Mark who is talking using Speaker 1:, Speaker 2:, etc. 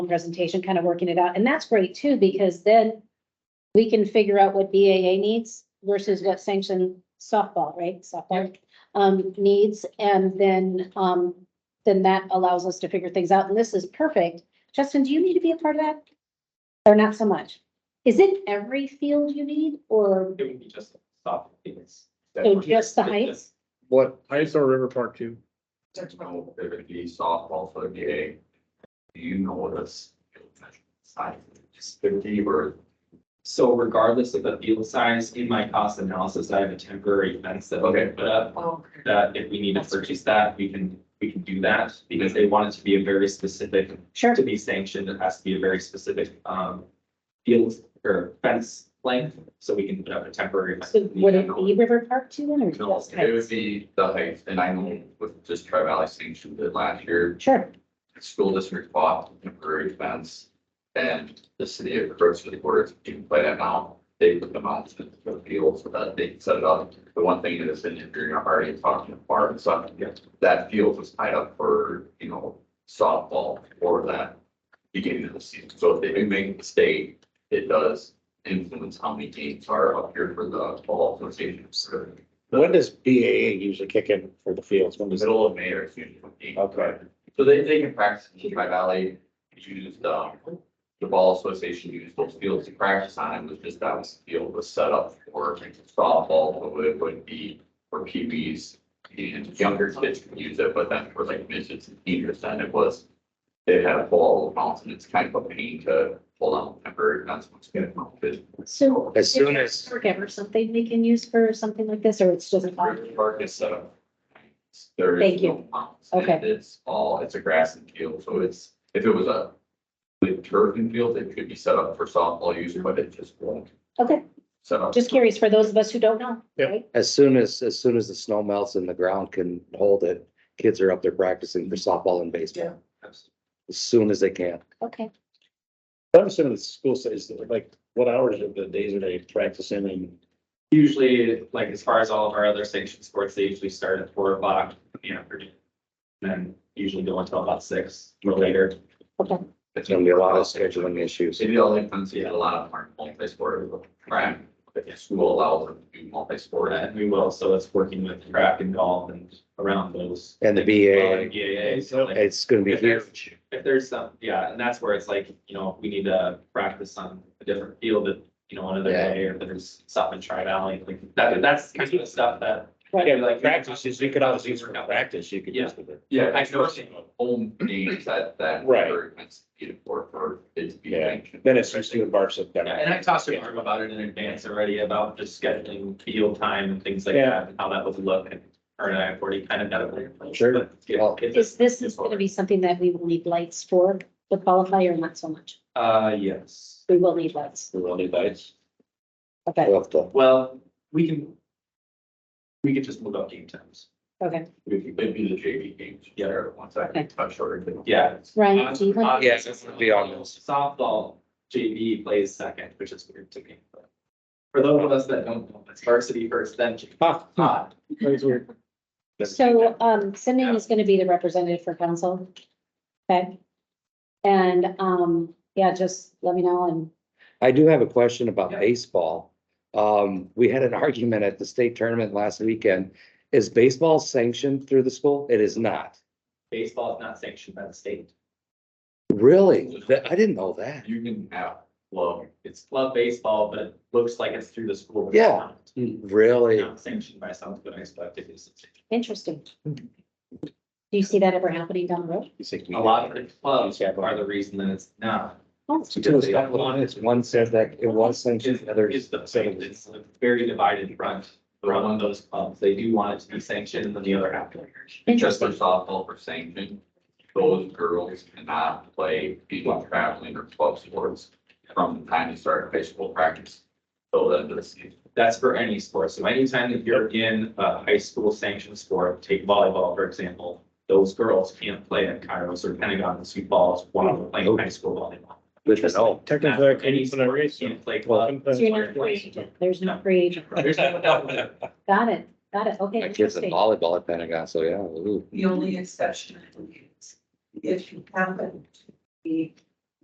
Speaker 1: presentation, kind of working it out. And that's great too, because then we can figure out what BAA needs versus what sanctioned softball, right? Softball um, needs. And then, um, then that allows us to figure things out. And this is perfect. Justin, do you need to be a part of that? Or not so much? Is it every field you need or
Speaker 2: It would be just stop things.
Speaker 1: so just the heights?
Speaker 3: What, Heights or River Park two?
Speaker 2: No, it would be softball for the VA. Do you know this? Size is fifty or. So regardless of the field size, in my cost analysis, I have a temporary fence that we can put up.
Speaker 1: Oh,
Speaker 2: That if we need to purchase that, we can, we can do that because they want it to be a very specific
Speaker 1: Sure.
Speaker 2: to be sanctioned, it has to be a very specific um field or fence length, so we can put up a temporary. fence.
Speaker 1: So would it be River Park too then or
Speaker 2: No,
Speaker 1: just
Speaker 4: It would
Speaker 1: heights?
Speaker 4: be the height, and I know with just Tri Valley Station did last year,
Speaker 1: Sure.
Speaker 4: school district bought a temporary fence. And the city of Crookston Quarters, you can play that now, they put them out to the field so that they can set it up. The one thing that is in, if you're already talking about bar and stuff, that field was tied up for, you know, softball for that. Beginning of the season, so if they do make a mistake, it does influence how many games are up here for the fall association. So
Speaker 5: When does BAA usually kick in for the fields? When
Speaker 4: The
Speaker 5: does,
Speaker 4: middle of May or June.
Speaker 5: Okay.
Speaker 4: So they, they can practice in Tri Valley, used, um, the ball association used those fields to practice on, it was just that was, the field was set up for softball, so it would be for PBs. And younger kids can use it, but then for like midgets and seniors, then it was, they had a ball bounce, and it's kind of a pain to hold on temporary, that's what's gonna come up with.
Speaker 1: So.
Speaker 5: As soon as-
Speaker 1: Or Ever something we can use for something like this, or it's just.
Speaker 4: River Park is set up. There is
Speaker 1: Thank you.
Speaker 4: no mounds. It-
Speaker 1: Okay.
Speaker 4: It's all, it's a grass and field, so it's, if it was a like turf and field, it could be set up for softball use, but it just won't
Speaker 1: Okay,
Speaker 4: set up.
Speaker 1: just curious for those of us who don't know,
Speaker 3: Yeah.
Speaker 1: right?
Speaker 5: as soon as, as soon as the snow melts and the ground can hold it, kids are up there practicing for softball and baseball as soon as they can.
Speaker 1: Okay.
Speaker 6: I'm assuming the school says, like, what hours of the days are they practicing and?
Speaker 2: Usually, like as far as all of our other sanctioned sports, they usually start at four o'clock in the afternoon. and Then usually go until about six or later.
Speaker 5: It's gonna be a lot of scheduling issues.
Speaker 4: City of Lincoln, see a lot of them are multi-sport, right? But the school allows them to do multi-sport
Speaker 2: And we will, so it's working with track and golf and around those.
Speaker 5: And the
Speaker 2: Uh,
Speaker 5: BAA,
Speaker 2: Yeah, yeah, so like-
Speaker 5: it's gonna be
Speaker 2: If there's-
Speaker 5: huge.
Speaker 2: if there's some, yeah, and that's where it's like, you know, if we need to practice on a different field that, you know, another
Speaker 5: Yeah.
Speaker 2: day, or if there's stuff in Tri Valley, like, that, that's kind of the stuff that.
Speaker 6: Yeah,
Speaker 2: like-
Speaker 6: like practices, you could always use for practice, you could use it.
Speaker 4: Yeah,
Speaker 2: I
Speaker 4: I
Speaker 2: know.
Speaker 4: know, home games at that.
Speaker 6: Right.
Speaker 4: It's for, for it to be
Speaker 6: Yeah.
Speaker 4: sanctioned.
Speaker 6: Then it's just doing varsity.
Speaker 2: Yeah, and I talked to Norm about it in advance already, about just scheduling field time and things like
Speaker 6: Yeah.
Speaker 2: that, and how that would look, and her and I have already kind of got it. in place,
Speaker 5: Sure.
Speaker 2: but yeah,
Speaker 5: Well-
Speaker 2: it's-
Speaker 1: Is this is gonna be something that we will need lights for, the qualifier, not so much?
Speaker 2: Uh, yes,
Speaker 1: We will need lights.
Speaker 6: We're only lights.
Speaker 1: Okay,
Speaker 5: We'll have to-
Speaker 2: well, we can. We could just move up game times,
Speaker 1: okay.
Speaker 4: It'd be- it'd be the JV games.
Speaker 2: Yeah.
Speaker 4: Once I
Speaker 1: Okay.
Speaker 4: can touch shorter.
Speaker 2: yeah.
Speaker 5: Uh,
Speaker 1: Ryan, do you have?
Speaker 5: Yeah, this would be on those.
Speaker 2: Uh, Softball JV plays second, which is weird to me, but. For those of us that don't know, it's varsity first, then JV.
Speaker 6: Huh,
Speaker 2: Ah,
Speaker 6: that's weird.
Speaker 5: uh,
Speaker 1: So, um, Cindy is gonna be the representative for council. Okay. And, um, yeah, just let me know and,
Speaker 5: I do have a question about
Speaker 2: Yeah.
Speaker 5: baseball. Um, we had an argument at the state tournament last weekend. Is baseball sanctioned through the school? It is not.
Speaker 2: Baseball is not sanctioned by the state.
Speaker 5: Really? That- I didn't know that.
Speaker 4: You can have,
Speaker 2: Well, it's club baseball, but it looks like it's through the school. but it's
Speaker 5: Yeah.
Speaker 2: not.
Speaker 5: Really?
Speaker 2: Not sanctioned by South Dakota Activities.
Speaker 1: interesting. Do you see that ever happening down the road?
Speaker 5: You think we-
Speaker 2: A lot of the clubs are the reason that it's not.
Speaker 1: Oh,
Speaker 5: Because that one is- one said that it was sanctioned,
Speaker 2: Is
Speaker 5: the other
Speaker 2: is the,
Speaker 5: said it was-
Speaker 2: it's a very divided front around those clubs. They do want it to be sanctioned and then the other half.
Speaker 4: just for
Speaker 1: Interesting.
Speaker 4: softball for sanctioned, those girls cannot play anyone traveling or club sports from the time they start baseball practice till the end of the season.
Speaker 2: That's for any sport. So anytime that you're in a high school sanctioned sport, take volleyball, for example, those girls can't play at Kairos or Pentagon and sweet balls while they're playing high school volleyball.
Speaker 5: Good to know.
Speaker 6: Technically, I couldn't
Speaker 2: Any
Speaker 6: even erase
Speaker 2: sport
Speaker 6: them.
Speaker 2: can't play club.
Speaker 6: Well,
Speaker 1: So you're not free agent. There's no free agent.
Speaker 2: There's no doubt with it.
Speaker 1: Got it, got it. Okay,
Speaker 5: My kid's in
Speaker 1: interesting.
Speaker 5: volleyball at Pentagon, so yeah. ooh.
Speaker 7: The only exception I believe is if you happen to be